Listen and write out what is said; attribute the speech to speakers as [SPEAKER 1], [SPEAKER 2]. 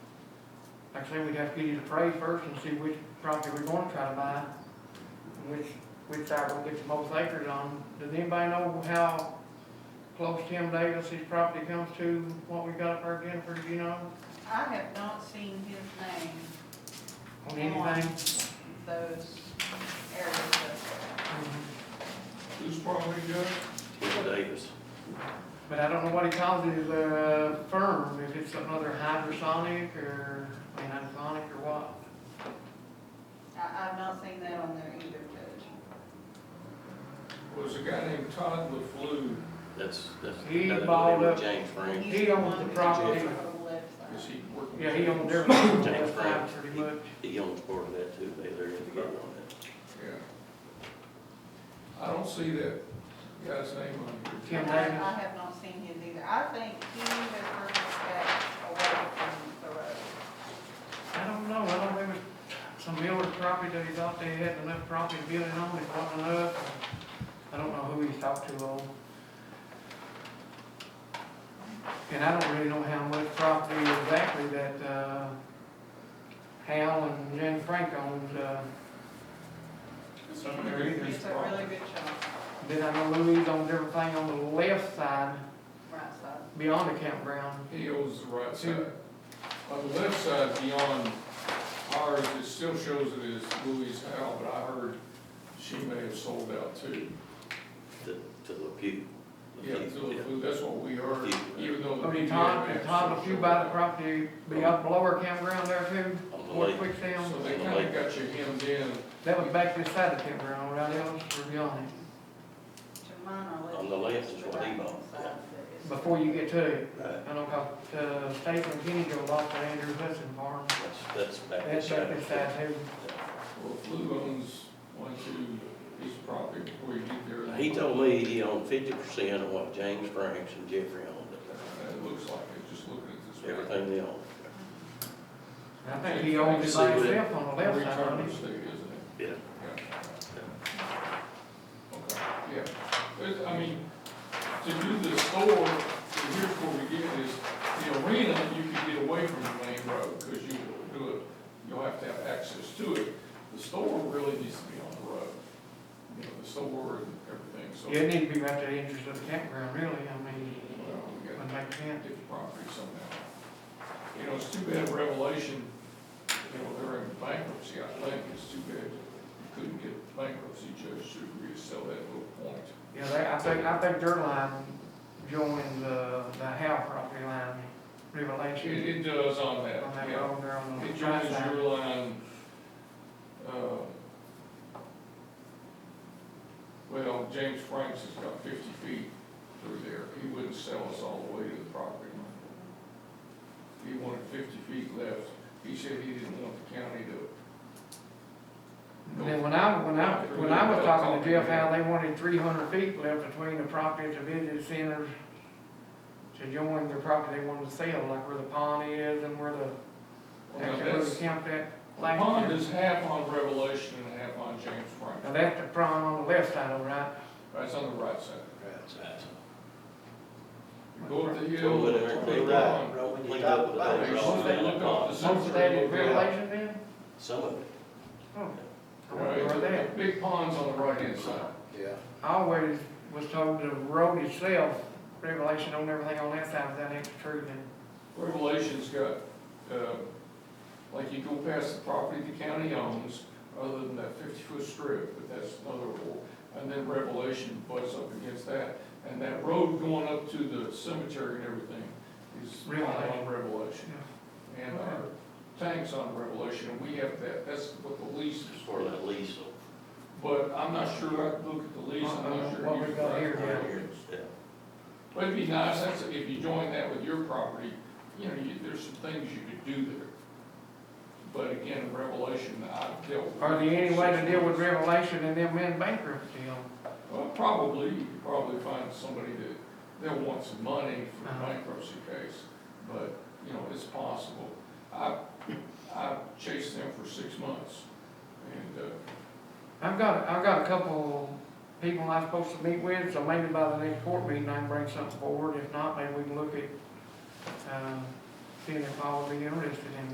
[SPEAKER 1] Like I say, we'd have to get you the price first and see which property we're gonna try to buy, and which, which side we'll get the most acres on. Does anybody know how close Tim Davis's property comes to what we got up there, Jennifer, do you know,
[SPEAKER 2] I have not seen his name
[SPEAKER 1] on anything?
[SPEAKER 2] in those areas of,
[SPEAKER 3] Who's probably good?
[SPEAKER 4] Tim Davis.
[SPEAKER 1] But I don't know what he calls his, uh, firm, if it's another hydrosonic or, I mean, hydroponic or what.
[SPEAKER 2] I, I've not seen that on there either, Judge.
[SPEAKER 3] Was a guy named Todd LaFleur.
[SPEAKER 4] That's, that's.
[SPEAKER 1] He
[SPEAKER 4] that's
[SPEAKER 1] bought
[SPEAKER 4] with
[SPEAKER 1] up-
[SPEAKER 4] James Frank.
[SPEAKER 2] He's
[SPEAKER 1] He owns
[SPEAKER 2] one
[SPEAKER 1] the
[SPEAKER 2] that
[SPEAKER 1] property.
[SPEAKER 2] lives on the left side.
[SPEAKER 3] Is he working?
[SPEAKER 1] Yeah, he owns their farm,
[SPEAKER 4] James
[SPEAKER 1] that's fine,
[SPEAKER 4] Frank.
[SPEAKER 1] pretty much.
[SPEAKER 4] He owns part of that too, they, they're together on that.
[SPEAKER 3] Yeah. I don't see that guy's name on here.
[SPEAKER 1] Tim
[SPEAKER 2] And I,
[SPEAKER 1] Davis.
[SPEAKER 2] I have not seen his either. I think he has purchased that away from the road.
[SPEAKER 1] I don't know, I don't remember, some builder property that he thought they had enough property to build it on, it wasn't enough. I don't know who he's talked to on. And I don't really know how much property exactly that, uh, Hal and Jen Frank owned, uh,
[SPEAKER 3] Some of
[SPEAKER 1] There he
[SPEAKER 3] these
[SPEAKER 2] It's a really
[SPEAKER 3] properties.
[SPEAKER 2] good shot,
[SPEAKER 1] then I know Louise owns everything on the left side
[SPEAKER 2] right side.
[SPEAKER 1] beyond the campground.
[SPEAKER 3] He owns the right
[SPEAKER 1] Two.
[SPEAKER 3] side. On the left side beyond ours, it still shows it as Louis Howe, but I heard she may have sold out too.
[SPEAKER 4] to, to LaPew.
[SPEAKER 3] Yeah,
[SPEAKER 4] LaPew,
[SPEAKER 3] so LaFleur, that's what we heard, even though the.
[SPEAKER 1] I mean,
[SPEAKER 3] PDA
[SPEAKER 1] Todd,
[SPEAKER 3] may have
[SPEAKER 1] Todd,
[SPEAKER 3] sold
[SPEAKER 1] if you
[SPEAKER 3] out.
[SPEAKER 1] buy the property beyond below our campground there too,
[SPEAKER 4] On the
[SPEAKER 1] or
[SPEAKER 4] lake,
[SPEAKER 1] quick
[SPEAKER 3] So
[SPEAKER 1] sale,
[SPEAKER 3] they kinda got you hemmed in.
[SPEAKER 1] that was back this side of campground, right else, or beyond it.
[SPEAKER 2] To mine or left.
[SPEAKER 4] On the left is what he
[SPEAKER 2] Right
[SPEAKER 4] bought,
[SPEAKER 2] side, but it's-
[SPEAKER 1] Before you get to it,
[SPEAKER 4] right,
[SPEAKER 1] I know, cause, uh, State and Kenny go off to Andrew Hudson Farm,
[SPEAKER 4] that's, that's back.
[SPEAKER 1] that's
[SPEAKER 4] inside.
[SPEAKER 1] back this side too.
[SPEAKER 3] Well, Lou owns one, two, piece of property before you get there. uh,
[SPEAKER 4] He told me he owned fifty percent of what James Franks and Jeffrey owned, up
[SPEAKER 3] It looks like it, just looking at this.
[SPEAKER 4] there. everything they owned.
[SPEAKER 2] Uh-huh.
[SPEAKER 1] I think he owns it by himself on the left side, don't
[SPEAKER 3] Return to
[SPEAKER 1] he?
[SPEAKER 3] state, isn't it?
[SPEAKER 4] Yeah,
[SPEAKER 3] Yeah. Okay, yeah, But, I mean, to do the store, and here's where we get this, the arena, you can get away from the main road, because you will do it, you'll have to have access to it. The store really needs to be on the road, you know, the store and everything, so.
[SPEAKER 1] Yeah, it needs to be right to the entrance of the campground, really, I mean,
[SPEAKER 3] Well, we got-
[SPEAKER 1] would make sense.
[SPEAKER 3] get the property somehow. You know, it's too bad Revelation, you know, they're in bankruptcy, I think, it's too bad you couldn't get bankruptcy judge to resell that little point.
[SPEAKER 1] Yeah, they, I think, I think their line joins, uh, the Howe property line, Revelation.
[SPEAKER 3] It, it does on that,
[SPEAKER 1] On that
[SPEAKER 3] yeah.
[SPEAKER 1] road there on the
[SPEAKER 3] It
[SPEAKER 1] right
[SPEAKER 3] joins
[SPEAKER 1] side.
[SPEAKER 3] your line, uh, well, James Franks has got fifty feet through there, he wouldn't sell us all the way to the property line. He wanted fifty feet left, he said he didn't want the county to.
[SPEAKER 1] And then when I, when I, when I was talking to Jeff, how they wanted three hundred feet left between the property at the visitor center to join the property they wanted to sell, like where the pond is and where the,
[SPEAKER 3] Well,
[SPEAKER 1] actually where
[SPEAKER 3] that's-
[SPEAKER 1] the camp at.
[SPEAKER 3] The
[SPEAKER 1] last
[SPEAKER 3] pond
[SPEAKER 1] year.
[SPEAKER 3] is half on Revelation and half on James Franks,
[SPEAKER 1] Now, that's the pond on the left side, all right?
[SPEAKER 3] that's on the right side.
[SPEAKER 4] right side.
[SPEAKER 3] You go up the hill.
[SPEAKER 4] Put it there,
[SPEAKER 3] turn
[SPEAKER 4] clean it
[SPEAKER 3] around.
[SPEAKER 4] up, clean up with
[SPEAKER 3] Right,
[SPEAKER 4] those
[SPEAKER 3] as soon as
[SPEAKER 4] rocks
[SPEAKER 3] they
[SPEAKER 4] down
[SPEAKER 3] look
[SPEAKER 4] the
[SPEAKER 3] off
[SPEAKER 4] pond.
[SPEAKER 3] the
[SPEAKER 1] Most of that is Revelation then?
[SPEAKER 4] Some of it,
[SPEAKER 1] Oh, I
[SPEAKER 3] Right,
[SPEAKER 1] wonder where that.
[SPEAKER 3] the Big pond's on the right hand side.
[SPEAKER 5] Yeah,
[SPEAKER 1] I always was told the road itself, Revelation owned everything on that side, is that ain't true then?
[SPEAKER 3] Revelation's got, uh, like you go past the property the county owns, other than that fifty-foot strip, but that's another rule. And then Revelation butts up against that, and that road going up to the cemetery and everything is
[SPEAKER 1] Really?
[SPEAKER 3] on Revelation.
[SPEAKER 1] Yeah.
[SPEAKER 3] And our tank's on Revelation, and we have that, that's what the lease is
[SPEAKER 4] as
[SPEAKER 3] for.
[SPEAKER 4] far as that lease,
[SPEAKER 3] But I'm not sure, I look at the lease, I'm not sure.
[SPEAKER 1] What
[SPEAKER 3] you
[SPEAKER 1] we
[SPEAKER 3] can
[SPEAKER 1] got here,
[SPEAKER 3] write-
[SPEAKER 4] yeah.
[SPEAKER 3] But it'd be nice, that's, if you join that with your property, you know, you, there's some things you could do there. But again, Revelation, I've dealt with.
[SPEAKER 1] Are there any way to deal with Revelation and them in bankruptcy on?
[SPEAKER 3] Well, probably, you could probably find somebody that, they'll want some money for the
[SPEAKER 1] Uh-huh.
[SPEAKER 3] bankruptcy case, but, you know, it's possible. I, I chased them for six months, and, uh,
[SPEAKER 1] I've got, I've got a couple people I'm supposed to meet with, so maybe by the next court meeting, I can bring uh, something forward. If not, maybe we can look at, um, seeing if I would be interested in